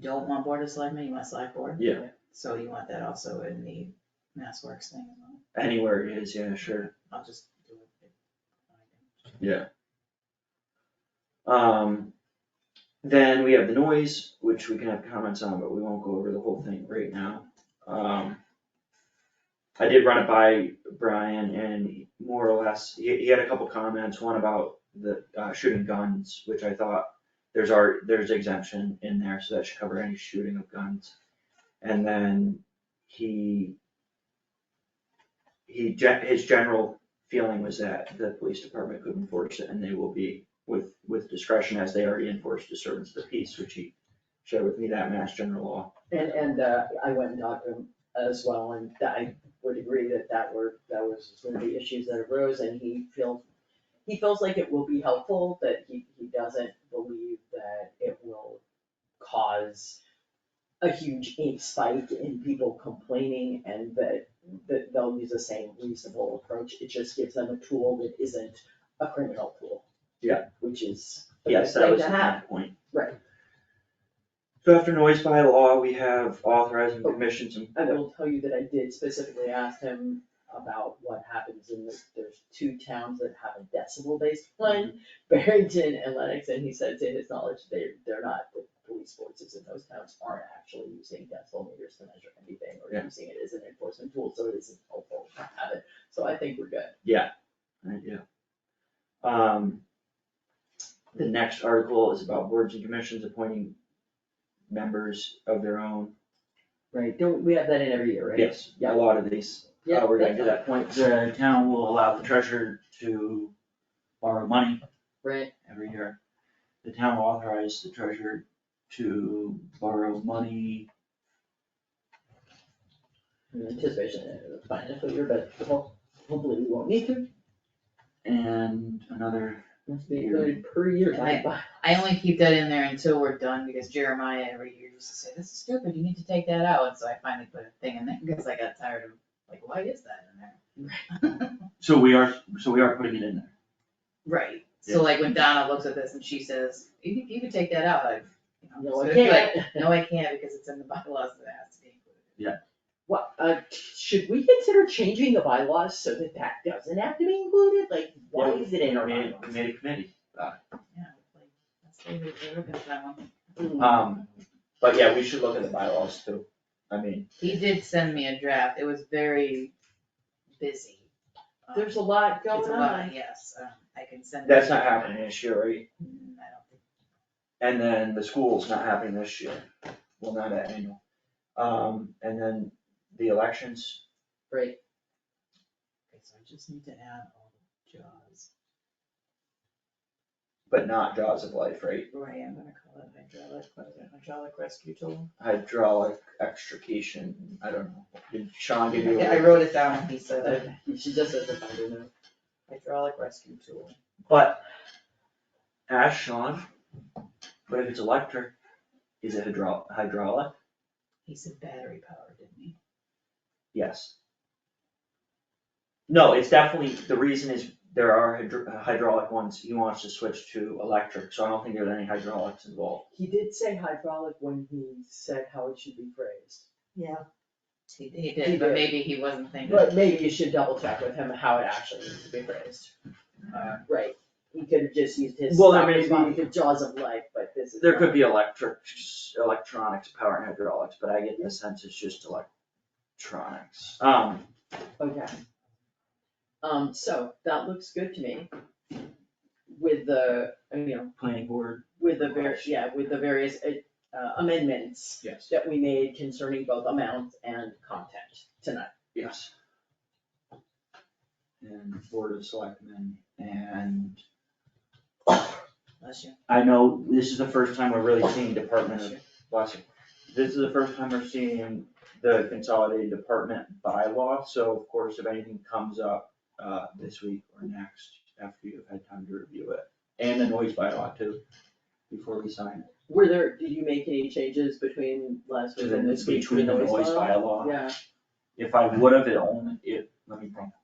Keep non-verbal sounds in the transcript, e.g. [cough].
don't want board of selectmen, you want select board? Yeah. So you want that also in the Mass Works thing as well, Anywhere it is, yeah, sure. I'll just do it. Um, then we have the noise, which we can have comments on, but we won't go over the whole thing right now. Um, I did run it by Brian and more or less, he, he had a couple comments, one about the, uh, shooting guns, which I thought there's our, there's exemption in there, so that should cover any shooting of guns. And then he he, gen- his general feeling was that the police department could enforce it and they will be with, with discretion as they already enforce disturbance of the peace, which he shared with me that mass general law. And, and, uh, I went and talked to him as well, and I would agree that that were, that was one of the issues that arose, and he feels, he feels like it will be helpful, that he, he doesn't believe that it will cause a huge spike in people complaining, and that, that they'll use the same reasonable approach, it just gives them a tool that isn't a criminal tool. Yeah. Which is. a Yes, good that thing was to the have. main point. Right. So after noise by law, we have authorizing Oh. commissions and. I will tell you that I did specifically ask him about what happens in the, there's two towns that have a decibel based plan, Barrington and Lennox, and he said to his knowledge, they, they're not, the police forces in those towns aren't actually using decibel meters to measure anything or Yeah. using it as an enforcement tool, so it isn't helpful to have it, so I think we're good. Right, yeah. Um, the next article is about boards and commissions appointing members of their own. Right, don't, we have that in every year, right? Yes, a lot of these Yeah, Uh, we're gonna that's do fine. that point, the town will allow the treasurer to borrow money Right, every year. The town will authorize the treasurer to borrow money. in anticipation uh, of the financial year, but ho- hopefully we won't need to, And another, must be included per year, Right. I only keep that in there until we're done, because Jeremiah every year used to say, this is stupid, you need to take that out, and so I finally put a thing in there, because I got tired of, like, why is that in there? so we are, so we are putting it in there. Right, Yeah. so like when Donna looks at this and she says, you can, you can take that out, I, you know. No, I so it's like, can't. No, I can't, because it's in the [laughs] bylaws that it has to be included. What, uh, should we consider changing the bylaws so that that doesn't have to be included? Like, why is it in our Committee, bylaws? Uh, committee, committee. Yeah, like, that's the way we're looking at that one. Mm, Um, but yeah, we should look at the bylaws too. I mean, He did send me a draft, it was very busy. Um, There's a lot It's going a lot, on. yes, um, I can send. that's it to not you. happening this year, right? Mm, I don't think- And then the school's not happening this year, well, not at annual. Um, and then the elections, Right, Okay, so I just need to add all the jaws, but not Jaws of Life, right? right, I'm gonna call it hydraulic, what is it, hydraulic rescue tool? Hydraulic extrication, I don't know. Did Sean give you? Yeah, I wrote it down, he said, uh, [laughs] uh, she just doesn't find it now. hydraulic rescue tool. But, ask Sean, but if it's electric, is it hydro- hydraulic? He said battery powered, didn't he? Yes. No, it's definitely, the reason is there are hydr- hydraulic ones, he wants to switch to electric, so I don't think there's any hydraulics involved. He did say hydraulic when he said how it should be phrased. Yeah. He, he He did, but did. maybe he wasn't thinking. But maybe you should double check with him how it actually needs to be phrased. Uh, Right, he could have just used his, Well, there may obviously, be- the jaws of life, but this is. There could be electrics, electronics, power and hydraulics, but I get the sense it's just electronics. Um, Okay. Um, so that looks good to me. With the, you know, planning board. with the var- yeah, with the various uh, amendments Yes. that we made concerning both amount and content tonight. Yes. And board of selectmen, and Bless you. I know this is the first time we're really seeing department, of- bless you. This is the first time we're seeing the consolidated department bylaw, so of course, if anything comes up, uh, this week or next, after you've had time to review it, and the noise bylaw too, before we sign. it. Were there, did you make any changes between last week and this week? to Between the noise bylaw? bylaw, Yeah, if I would have, it only, it, let me think.